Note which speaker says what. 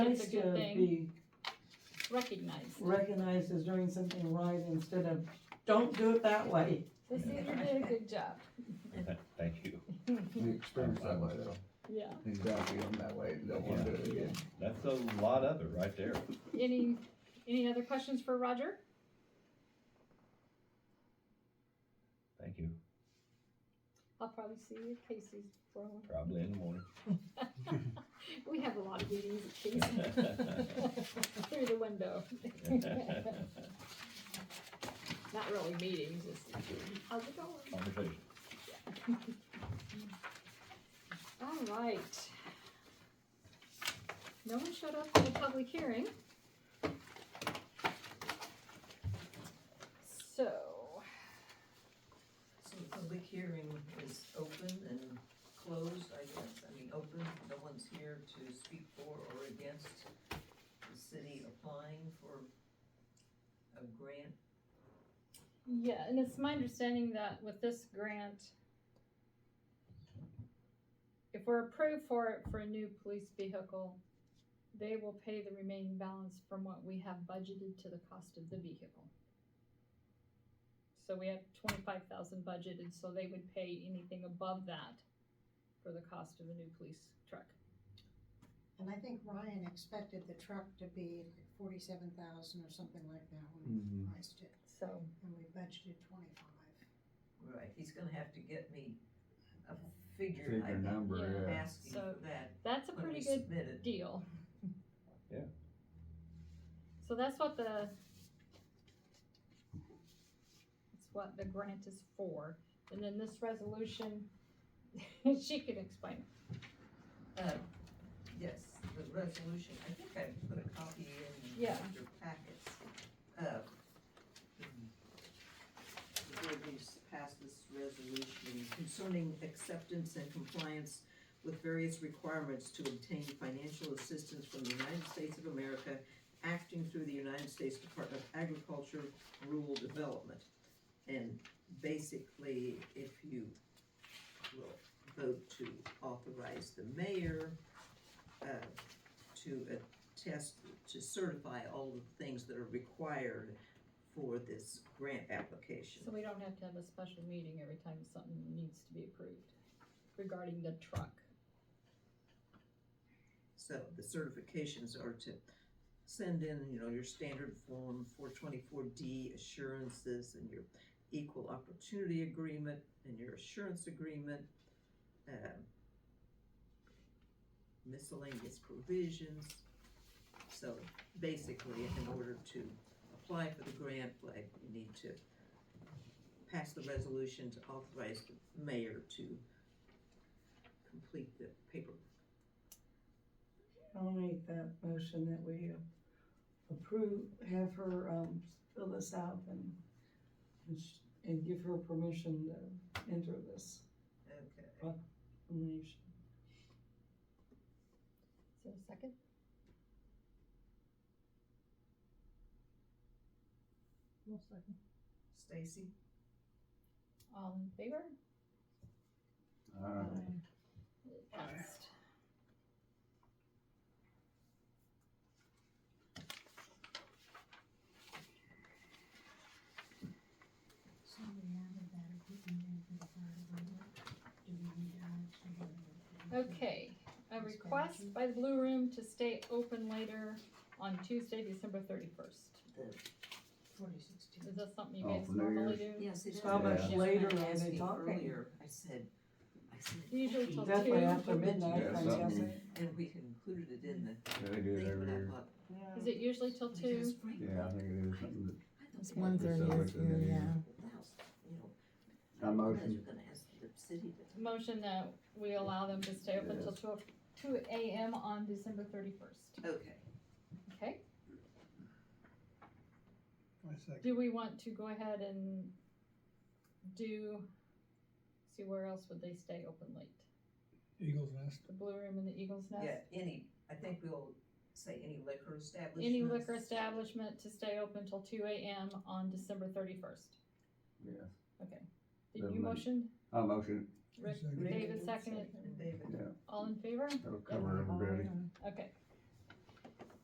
Speaker 1: That's a
Speaker 2: nice
Speaker 1: good
Speaker 2: to
Speaker 1: thing.
Speaker 2: be
Speaker 1: recognized.
Speaker 2: recognized as doing something right instead of, don't do it that way.
Speaker 1: The senior did a good job.
Speaker 3: Thank you.
Speaker 4: We experienced that way though.
Speaker 1: Yeah.
Speaker 4: Exactly, I'm that way, don't wanna do it again.
Speaker 3: That's a lot of it right there.
Speaker 1: Any, any other questions for Roger?
Speaker 3: Thank you.
Speaker 1: I'll probably see you at Casey's for one.
Speaker 3: Probably in the morning.
Speaker 1: We have a lot of meetings at Casey's. Through the window. Not really meetings, just, how's it going?
Speaker 3: Conversation.
Speaker 1: All right. No one showed up for the public hearing. So,
Speaker 5: So the public hearing is open and closed, I guess, I mean, open, no one's here to speak for or against the city applying for a grant.
Speaker 1: yeah, and it's my understanding that with this grant, if we're approved for it for a new police vehicle, they will pay the remaining balance from what we have budgeted to the cost of the vehicle. So we have twenty-five thousand budgeted, so they would pay anything above that for the cost of the new police truck.
Speaker 6: And I think Ryan expected the truck to be like forty-seven thousand or something like that when
Speaker 4: Mm-hmm.
Speaker 6: we
Speaker 4: Mm.
Speaker 6: priced it,
Speaker 1: So,
Speaker 6: and we budgeted twenty-five.
Speaker 5: Right, he's gonna have to get me a figure, I think,
Speaker 1: number,
Speaker 5: asking
Speaker 1: So-
Speaker 5: for that
Speaker 1: that's a
Speaker 5: when we
Speaker 1: pretty good
Speaker 5: submit it.
Speaker 1: deal.
Speaker 3: Yeah.
Speaker 1: So that's what the. That's what the grant is for, and then this resolution, she can explain. it.
Speaker 5: Uh, Yes, the resolution, I think I put a copy in
Speaker 1: Yeah.
Speaker 5: your packets. Uh, The board needs to pass this resolution concerning acceptance and compliance with various requirements to obtain financial assistance from the United States of America acting through the United States Department of Agriculture Rural Development. And basically, if you will vote to authorize the mayor uh, to attest, to certify all the things that are required for this grant application.
Speaker 1: So we don't have to have a special meeting every time something needs to be approved regarding the truck.
Speaker 5: So the certifications are to send in, you know, your standard form four twenty-four D assurances and your equal opportunity agreement and your assurance agreement, um, miscellaneous provisions. So basically, in order to apply for the grant, like, you need to pass the resolution to authorize the mayor to complete the paper
Speaker 2: I'll make that motion that we approve, have her, um, fill this out and, and sh- and give her permission to enter this
Speaker 5: Okay.
Speaker 2: nomination.
Speaker 1: Is there a second?
Speaker 5: Stacy?
Speaker 1: All in favor?
Speaker 4: Alright.
Speaker 6: Um,
Speaker 1: It passed.
Speaker 6: So we added that equipment in for the fire department. Do we need to add to the-
Speaker 1: Okay, a request by the Blue Room to stay open later on Tuesday, December thirty-first.
Speaker 6: Forty-six, two.
Speaker 1: Is that something you
Speaker 4: Oh,
Speaker 1: guys
Speaker 4: for New
Speaker 1: normally
Speaker 4: Year's?
Speaker 1: do?
Speaker 5: Yes, it is.
Speaker 2: How
Speaker 4: much
Speaker 2: later are
Speaker 5: asked
Speaker 2: they
Speaker 5: me
Speaker 2: talking?
Speaker 5: Earlier, I said, I said,
Speaker 1: Usually till two.
Speaker 2: Definitely after midnight,
Speaker 4: Yeah,
Speaker 2: I'm
Speaker 4: something.
Speaker 2: guessing.
Speaker 5: and we included it in the
Speaker 4: Yeah, they do it
Speaker 5: thing,
Speaker 4: every
Speaker 5: but I
Speaker 4: year.
Speaker 5: thought. "Oh,
Speaker 1: Is it usually till two?
Speaker 5: because Frank-
Speaker 4: Yeah, I think it is something
Speaker 5: I don't
Speaker 7: It's
Speaker 5: think I
Speaker 7: one
Speaker 4: Or
Speaker 7: thirty,
Speaker 4: something
Speaker 7: it's,
Speaker 4: like that, yeah.
Speaker 7: yeah.
Speaker 5: was- you know,
Speaker 4: that, a
Speaker 5: I realized
Speaker 4: motion,
Speaker 5: you're gonna ask the city, but
Speaker 1: Motion that we allow them to stay open till two, two AM on December thirty-first,
Speaker 5: Okay,
Speaker 1: okay? Do we want to go ahead and do, see where else would they stay open late?
Speaker 8: Eagles Nest.
Speaker 1: The Blue Room and the Eagle's
Speaker 5: yeah,
Speaker 1: Nest?
Speaker 5: any, I think we'll say any liquor establishment.
Speaker 1: Any liquor establishment to stay open till two AM on December thirty-first?
Speaker 4: yes,
Speaker 1: Okay. Did you
Speaker 4: Definitely.
Speaker 1: motion?
Speaker 4: a motion,
Speaker 1: Rick,
Speaker 8: Second.
Speaker 1: David seconded,
Speaker 5: And David,
Speaker 4: yeah,
Speaker 1: all in favor?
Speaker 4: it'll cover everybody.
Speaker 1: Okay,